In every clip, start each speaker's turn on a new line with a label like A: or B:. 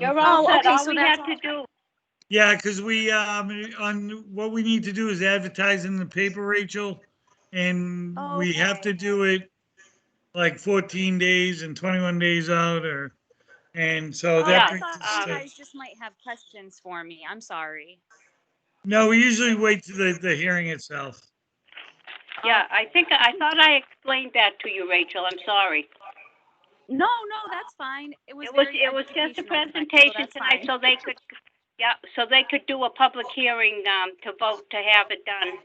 A: You're
B: Oh,
A: all set.
B: okay,
A: All
B: so
A: we
B: that's
A: have to do,
C: Yeah, because we, um, on, what we need to do is advertise in the paper, Rachel. And
A: Oh,
C: we have to do it like 14 days and 21 days out or, and so
B: Oh, I
C: that.
B: thought
C: brings
B: you
C: us
A: Um,
C: to-
B: guys just might have questions for me. I'm sorry.
C: No, we usually wait to the, the hearing itself.
A: yeah, I think, I thought I explained that to you, Rachel. I'm sorry.
B: No, no, that's fine. It was
A: It was,
B: very
A: it was just a
B: educational tonight, so
A: presentation
B: that's
A: tonight,
B: fine.
A: so they could, yeah, so they could do a public hearing, um, to vote to have it done.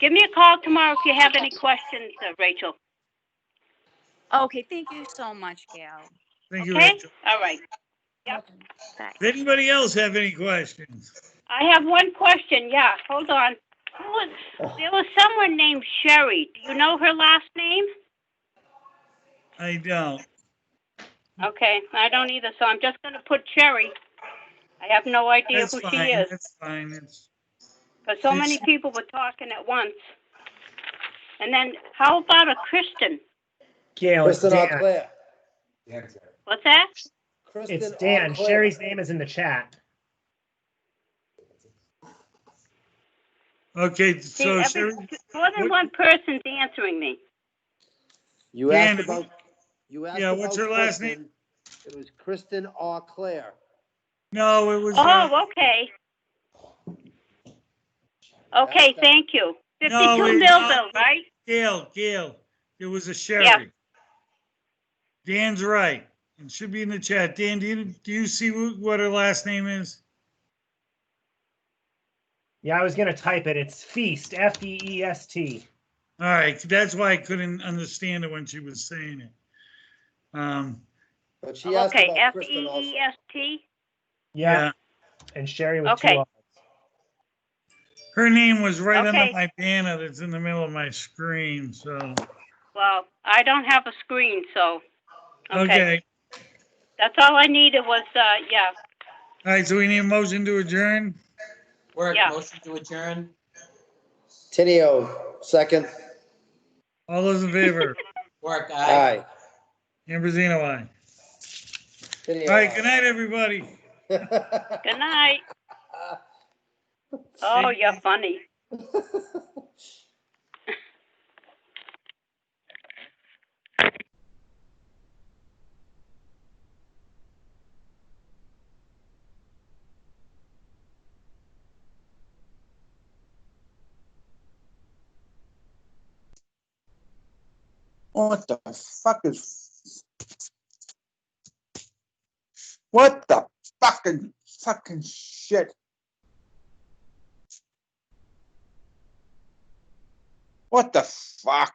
A: Give me a call tomorrow if you have any questions, uh, Rachel.
B: Okay, thank you so much, Gail.
C: Thank you,
A: Okay?
C: Rachel.
A: All right.
C: Does anybody else have any questions?
A: I have one question, yeah, hold on. Who was,
C: Oh.
A: there was someone named Sherry. Do you know her last name?
C: I don't. Hmm.
A: Okay, I don't either, so I'm just gonna put Sherry. I have no idea
C: That's
A: who she
C: fine.
A: is,
C: That's fine. It's-
A: because so many
C: It's-
A: people were talking at once. And then, how about a Kristen?
D: Gail, it's
E: Kristen
D: Dan.
E: Alclair.
A: What's that?
D: It's Dan. Sherry's name is in the chat.
C: Okay,
A: See,
C: so
A: every-
C: Sherry,
A: More than
C: What-
A: one person's answering me.
E: You asked
C: Dan,
E: about, you asked
C: yeah,
E: about.
C: what's her last name?
E: Kristen. It was Kristen Alclair.
C: no, it was. uh,
A: Oh, okay. Okay, thank you.
C: No,
A: Fifty-two
C: we-
A: Millville, right?
C: Gail, Gail, it was a Sherry. Dan's right. It should be in the chat. Dan, do you, do you see wh- what her last name is?
D: Yeah, I was gonna type it. It's Feast, F E E S T.
C: All right, that's why I couldn't understand it when she was saying it. Um,
E: But she asked
A: Okay,
E: about
A: F
E: Kristen
A: E
E: also.
A: E S T.
D: Yeah,
C: yeah,
D: and Sherry with two
A: Okay.
D: R's.
C: her name was right
A: Okay.
C: under my banner that's in the middle of my screen, so,
A: Well, I don't have a screen, so.
C: okay.
A: That's all I needed was, uh, yeah,
C: All right, so we need a motion to adjourn?
F: Work,
A: Yeah.
F: motion to adjourn.
E: Tenio, second.
C: All those in favor?
F: Work, aye.
E: Aye.
C: Ambrosino, aye.
E: Tenio,
C: All right, good night, everybody.
E: aye.
A: good night. Oh, you're funny.
G: What the fuck is? What the fucking fucking shit? What the fuck?